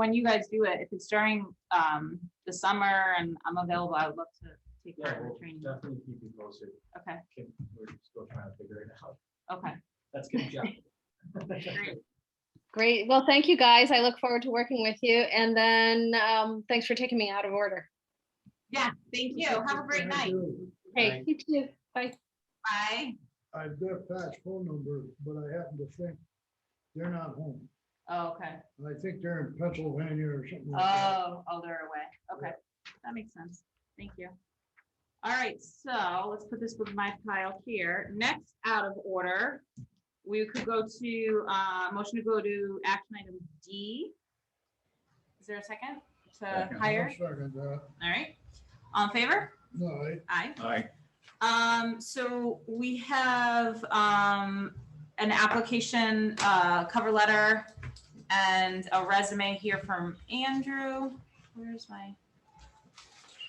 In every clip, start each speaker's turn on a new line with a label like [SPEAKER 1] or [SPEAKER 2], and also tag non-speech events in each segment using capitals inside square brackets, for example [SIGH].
[SPEAKER 1] when you guys do it, if it's during, um, the summer and I'm available, I would love to take part
[SPEAKER 2] Yeah,
[SPEAKER 1] in
[SPEAKER 2] we'll
[SPEAKER 1] the training.
[SPEAKER 2] definitely keep you posted.
[SPEAKER 1] Okay,
[SPEAKER 2] Can- We're still trying to figure it out.
[SPEAKER 1] okay,
[SPEAKER 2] That's good job.
[SPEAKER 1] great.
[SPEAKER 3] Great. Well, thank you, guys. I look forward to working with you. And then um, thanks for taking me out of order.
[SPEAKER 1] Yeah, thank you. Have a [LAUGHS] great night.
[SPEAKER 3] Hey, you too. Bye.
[SPEAKER 1] Bye.
[SPEAKER 4] I've got Pat's phone number, but I happen to think they're not home.
[SPEAKER 1] Oh, okay.
[SPEAKER 4] I think they're in Pennsylvania or something like that.
[SPEAKER 1] Oh, oh, they're away. Okay, that makes sense. Thank you. All right, so let's put this with my pile here. Next out of order, we could go to, uh, motion to go to action item D. Is there a second to
[SPEAKER 5] Second.
[SPEAKER 4] I'll
[SPEAKER 1] hire?
[SPEAKER 4] Second that.
[SPEAKER 1] All right. All in favor?
[SPEAKER 4] No, I-
[SPEAKER 1] Aye.
[SPEAKER 5] Aye.
[SPEAKER 1] Um, so we have, um, an application, uh, cover letter and a resume here from Andrew. Where's my?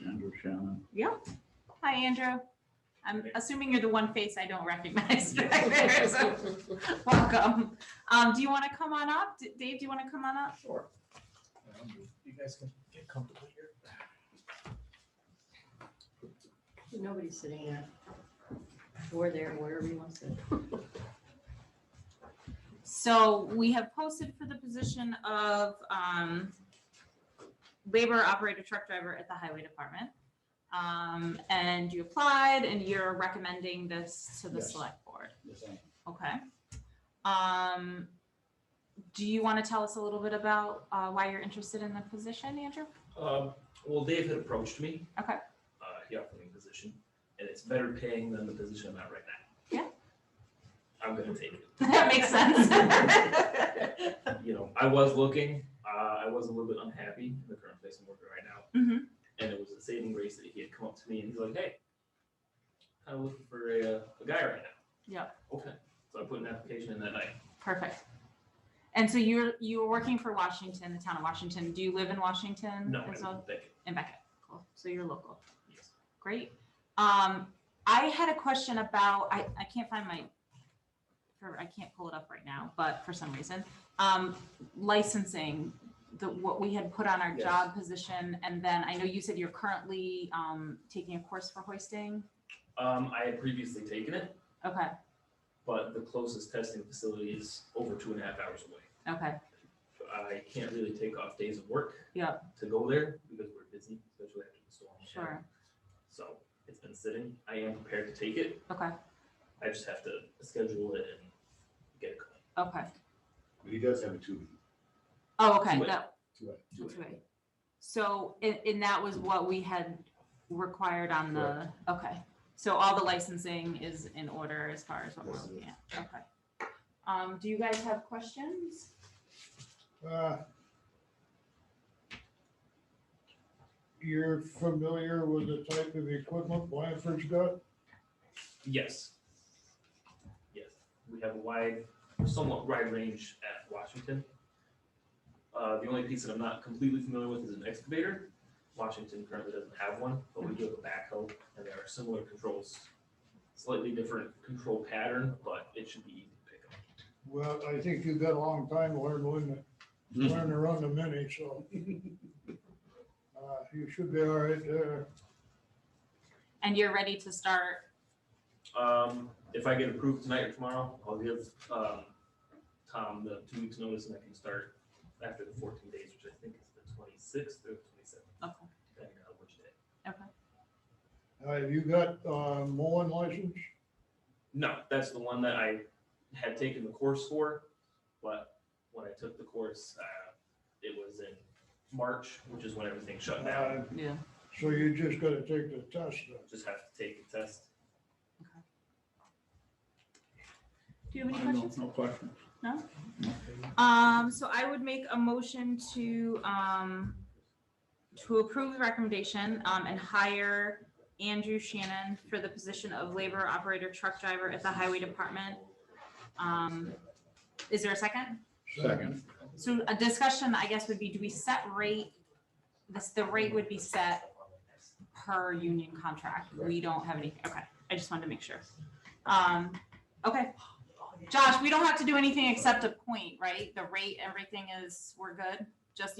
[SPEAKER 5] Andrew Shannon.
[SPEAKER 1] Yep. Hi, Andrew. I'm assuming you're the one face I don't recognize [LAUGHS] back there, so welcome. Um, do you want to come on up? D- Dave, do you want to come on up?
[SPEAKER 2] Sure. Um, You guys can get comfortable here.
[SPEAKER 6] Nobody's sitting there. Or there, wherever you want to sit.
[SPEAKER 1] So we have posted for the position of um, labor operator truck driver at the highway department. Um, And you applied and you're recommending this to the
[SPEAKER 5] Yes.
[SPEAKER 1] select board.
[SPEAKER 5] Yes, I am.
[SPEAKER 1] Okay. Um, do you want to tell us a little bit about uh, why you're interested in the position, Andrew? [LAUGHS]
[SPEAKER 7] Um, well, Dave had approached me.
[SPEAKER 1] Okay.
[SPEAKER 7] Uh, he offered me a position, and it's better paying than the position I'm at right now.
[SPEAKER 1] Yeah.
[SPEAKER 7] I'm gonna take it.
[SPEAKER 1] That makes sense.
[SPEAKER 5] [LAUGHS]
[SPEAKER 7] You know, I was looking, uh, I was a little bit unhappy in the current place I'm working right now.
[SPEAKER 1] Mhm.
[SPEAKER 7] And it was a saving grace that he had come up to me and he's like, hey, I'm looking for a, uh, a guy right now.
[SPEAKER 1] Yeah.
[SPEAKER 7] Okay, so I put an application in that night.
[SPEAKER 1] Perfect. And so you're you're working for Washington, the town of Washington. Do you live in Washington?
[SPEAKER 7] No, I
[SPEAKER 1] as well?
[SPEAKER 7] didn't think it.
[SPEAKER 1] In Beckett. Cool. So you're local.
[SPEAKER 7] Yes.
[SPEAKER 1] Great. Um, I had a question about, I, I can't find my, or I can't pull it up right now, but for some reason, um, licensing, the, what we had put on our
[SPEAKER 7] Yes.
[SPEAKER 1] job position, and then I know you said you're currently, um, taking a course for hoisting.
[SPEAKER 7] Um, I had previously taken it,
[SPEAKER 1] Okay,
[SPEAKER 7] but the closest testing facility is over two and a half hours away.
[SPEAKER 1] okay,
[SPEAKER 7] I can't really take off days of work.
[SPEAKER 1] Yeah.
[SPEAKER 7] To go there because we're busy, especially after the storm.
[SPEAKER 1] sure,
[SPEAKER 7] So it's been sitting. I am prepared to take it.
[SPEAKER 1] okay,
[SPEAKER 7] I just have to schedule it and get it going.
[SPEAKER 1] okay.
[SPEAKER 8] But he does have a two,
[SPEAKER 1] Oh, okay,
[SPEAKER 7] Two-way.
[SPEAKER 1] that,
[SPEAKER 8] two,
[SPEAKER 7] Do it.
[SPEAKER 1] that's right. So, and, and that was what we had required on the, okay. So all the licensing is in order as far as what we're
[SPEAKER 8] Yes, it
[SPEAKER 1] looking at, okay. Um, do you guys have questions?
[SPEAKER 4] uh, You're familiar with the type of equipment Blanford's got?
[SPEAKER 7] Yes. Yes. We have a wide, somewhat wide range at Washington. Uh, the only piece that I'm not completely familiar with is an excavator. Washington currently doesn't have one, but we do have a backhoe, and there are similar controls. Slightly different control pattern, but it should be easy to pick up.
[SPEAKER 4] Well, I think you've got a long time to learn, wouldn't it? Learn to run the mini, so. uh, You should be all right there.
[SPEAKER 1] And you're ready to start,
[SPEAKER 7] Um, if I get approved tonight or tomorrow, I'll give, um, Tom the two weeks notice and I can start after the fourteen days, which I think is the twenty-sixth or twenty-seventh,
[SPEAKER 1] okay,
[SPEAKER 7] depending on which day.
[SPEAKER 1] okay,
[SPEAKER 4] Have you got uh, mowing license?
[SPEAKER 7] No, that's the one that I had taken the course for, but when I took the course, uh, it was in March, which is when everything shut down.
[SPEAKER 4] Uh,
[SPEAKER 1] yeah.
[SPEAKER 4] So you just gotta take the test then.
[SPEAKER 7] Just have to take the test.
[SPEAKER 1] Do you have any
[SPEAKER 5] I
[SPEAKER 1] questions?
[SPEAKER 5] don't- No question.
[SPEAKER 1] Um, so I would make a motion to, um, to approve the recommendation, um, and hire Andrew Shannon for the position of labor operator truck driver at the highway department. Um, is there a second?
[SPEAKER 5] Second.
[SPEAKER 1] So a discussion, I guess, would be, do we set rate? This, the rate would be set per union contract. We don't have any, okay, I just wanted to make sure. Um, okay. Josh, we don't have to do anything except a point, right? The rate, everything is, we're good? Just